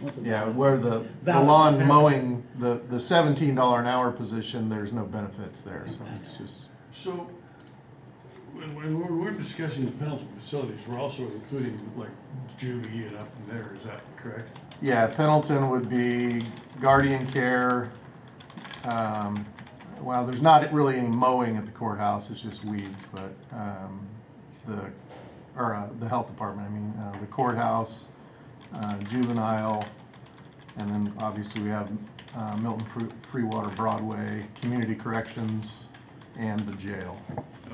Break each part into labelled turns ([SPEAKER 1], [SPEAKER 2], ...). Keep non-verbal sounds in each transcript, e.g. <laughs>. [SPEAKER 1] What's it-
[SPEAKER 2] Yeah, where the, the
[SPEAKER 1] Valid,
[SPEAKER 2] lawn
[SPEAKER 1] valid.
[SPEAKER 2] mowing, the, the seventeen dollar an hour position, there's no benefits there, so it's just,
[SPEAKER 3] So, when, when we're, we're discussing the penalty facilities, we're also including like juvie and up in there, is that correct?
[SPEAKER 2] yeah, Pendleton would be guardian care. Um, well, there's not really any mowing at the courthouse, it's just weeds, but, um, the, or, uh, the health department, I mean, uh, the courthouse, uh, juvenile, and then obviously we have, uh, Milton Fru- Free Water Broadway, community corrections, and the jail.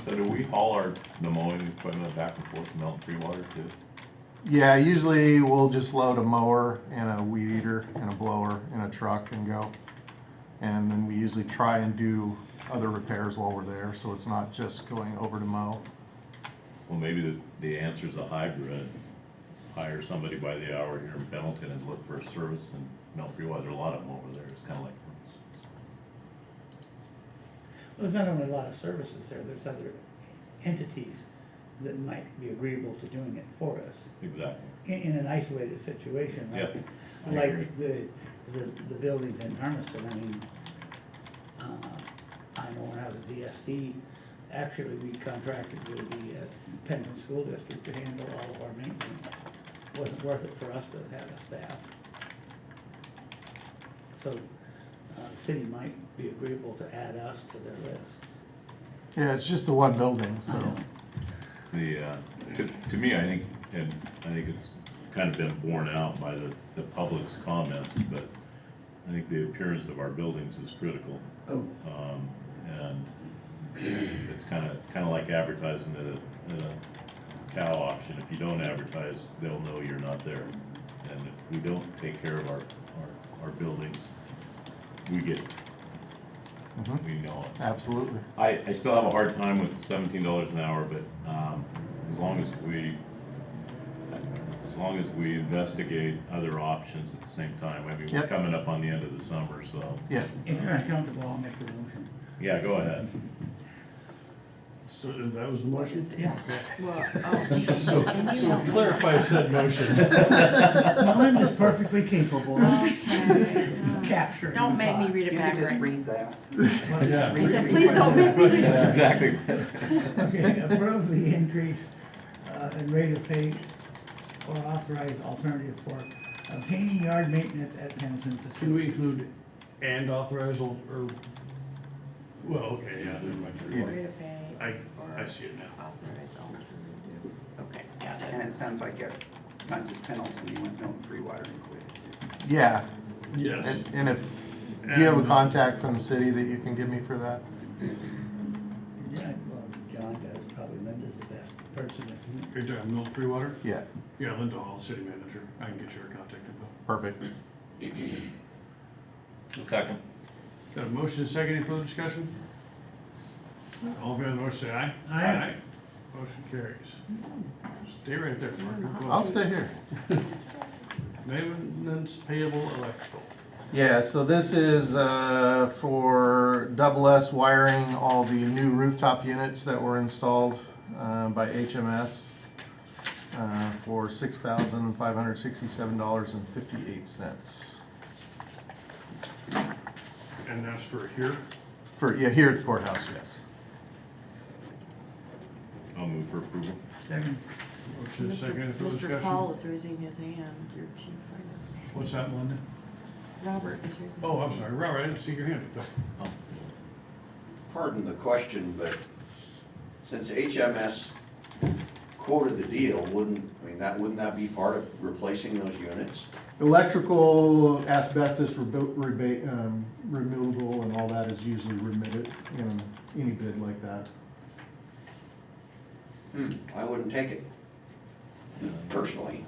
[SPEAKER 4] So do we haul our, the mowing equipment back and forth to Melton Free Water too?
[SPEAKER 2] Yeah, usually we'll just load a mower and a weed eater and a blower in a truck and go. And then we usually try and do other repairs while we're there, so it's not just going over to mow.
[SPEAKER 4] Well, maybe the, the answer's a hybrid. Hire somebody by the hour here in Pendleton and look for a service in Melton Free Water. There's a lot of them over there. It's kinda like,
[SPEAKER 1] There's not only a lot of services there, there's other entities that might be agreeable to doing it for us
[SPEAKER 4] exactly.
[SPEAKER 1] in, in an isolated situation. like-
[SPEAKER 4] Yeah, I
[SPEAKER 1] Like the, the, the buildings in Hermiston, I mean, uh, I know when I was at DSD, actually, we contracted with the uh, Pendleton School District to handle all of our maintenance. Wasn't worth it for us to have a staff. So, uh, the city might be agreeable to add us to their list.
[SPEAKER 2] Yeah, it's just the one building,
[SPEAKER 1] I
[SPEAKER 2] so.
[SPEAKER 1] know.
[SPEAKER 4] The, uh, to, to me, I think, and I think it's kind of been borne out by the, the public's comments, but I think the appearance of our buildings is critical.
[SPEAKER 1] Oh,
[SPEAKER 4] Um, and it's kind of, kind of like advertising at a, at a cow auction. If you don't advertise, they'll know you're not there. And if we don't take care of our, our, our buildings, we get, it.
[SPEAKER 2] Mhm,
[SPEAKER 4] we know it.
[SPEAKER 2] Absolutely.
[SPEAKER 4] I, I still have a hard time with seventeen dollars an hour, but, um, as long as we, as long as we investigate other options at the same time, I mean, we're
[SPEAKER 2] Yep.
[SPEAKER 4] coming up on the end of the summer, so,
[SPEAKER 2] Yeah,
[SPEAKER 1] if you're uncomfortable, I'll make the motion.
[SPEAKER 4] yeah, go ahead.
[SPEAKER 3] So that was the motion?
[SPEAKER 1] Yeah.
[SPEAKER 5] Well, oh,
[SPEAKER 3] So, so clarify said motion.
[SPEAKER 1] Melinda's perfectly capable of
[SPEAKER 5] okay. <laughs>
[SPEAKER 1] capturing.
[SPEAKER 5] Don't make me read it
[SPEAKER 6] You can
[SPEAKER 5] back
[SPEAKER 6] just
[SPEAKER 5] right.
[SPEAKER 6] read that.
[SPEAKER 3] Yeah.
[SPEAKER 5] He said, please don't make me read
[SPEAKER 4] That's <laughs>
[SPEAKER 5] it.
[SPEAKER 4] exactly.
[SPEAKER 1] Okay, approve the increase uh, in rate of pay or authorize alternative for obtaining yard maintenance at Pendleton
[SPEAKER 3] Can
[SPEAKER 1] facility.
[SPEAKER 3] we include and authorize or, or- well, okay, yeah, never mind.
[SPEAKER 5] Rate of pay
[SPEAKER 3] I,
[SPEAKER 5] or
[SPEAKER 3] I see it now.
[SPEAKER 5] authorize alternative. Okay, got
[SPEAKER 6] And
[SPEAKER 5] it.
[SPEAKER 6] it sounds like a, not just Pendleton, you went Milton Free Water included.
[SPEAKER 2] yeah,
[SPEAKER 3] Yes,
[SPEAKER 2] and, and if, do you have a contact from the city that you can give me for that?
[SPEAKER 1] Yeah, well, John does, probably Linda's the best person. to-
[SPEAKER 3] you're talking Milton Free Water?
[SPEAKER 2] Yeah,
[SPEAKER 3] Yeah, Linda Hall, city manager. I can get your contact info.
[SPEAKER 2] perfect.
[SPEAKER 4] Second.
[SPEAKER 3] Got a motion and second, any further discussion? All in favor of the motion, say aye.
[SPEAKER 1] Aye.
[SPEAKER 3] Motion carries. Stay right there, Mark.
[SPEAKER 2] I'll stay here.
[SPEAKER 3] Maintenance payable electrical.
[SPEAKER 2] Yeah, so this is uh, for double S wiring all the new rooftop units that were installed uh, by HMS uh, for six thousand five hundred sixty-seven dollars and fifty-eight cents.
[SPEAKER 3] And that's for here.
[SPEAKER 2] For, yeah, here at the courthouse, yes.
[SPEAKER 4] I'll move for approval.
[SPEAKER 1] Second,
[SPEAKER 3] Motion and second, any further
[SPEAKER 5] Mr. Paul
[SPEAKER 3] discussion?
[SPEAKER 5] is raising his hand, your chief finance.
[SPEAKER 3] What's that, Melinda?
[SPEAKER 5] Robert is raising.
[SPEAKER 3] Oh, I'm sorry, Robert, I didn't see your hand.
[SPEAKER 7] pardon the question, but since HMS quoted the deal, wouldn't, I mean, that, wouldn't that be part of replacing those units?
[SPEAKER 2] Electrical asbestos rebu- rebate, um, removal and all that is usually remitted in any bid like that.
[SPEAKER 7] Hmm, I wouldn't take it personally.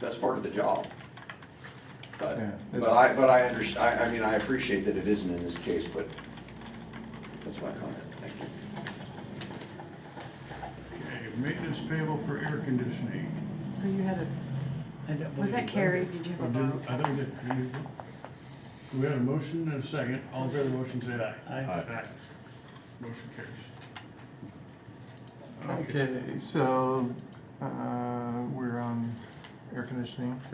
[SPEAKER 7] That's part of the job. But,
[SPEAKER 2] Yeah,
[SPEAKER 7] but
[SPEAKER 2] it's-
[SPEAKER 7] I, but I underst, I, I mean, I appreciate that it isn't in this case, but that's my comment, thank you.
[SPEAKER 3] Okay, maintenance payable for air conditioning.
[SPEAKER 5] So you had a,
[SPEAKER 1] I don't
[SPEAKER 5] was
[SPEAKER 1] believe
[SPEAKER 5] that
[SPEAKER 1] it.
[SPEAKER 5] Carrie? Did you
[SPEAKER 3] I
[SPEAKER 5] have a vote?
[SPEAKER 3] don't get, you, we had a motion and a second, all in favor of the motion, say aye.
[SPEAKER 1] I-
[SPEAKER 4] Aye.
[SPEAKER 3] Motion carries.
[SPEAKER 2] Okay, so uh, we're on air conditioning.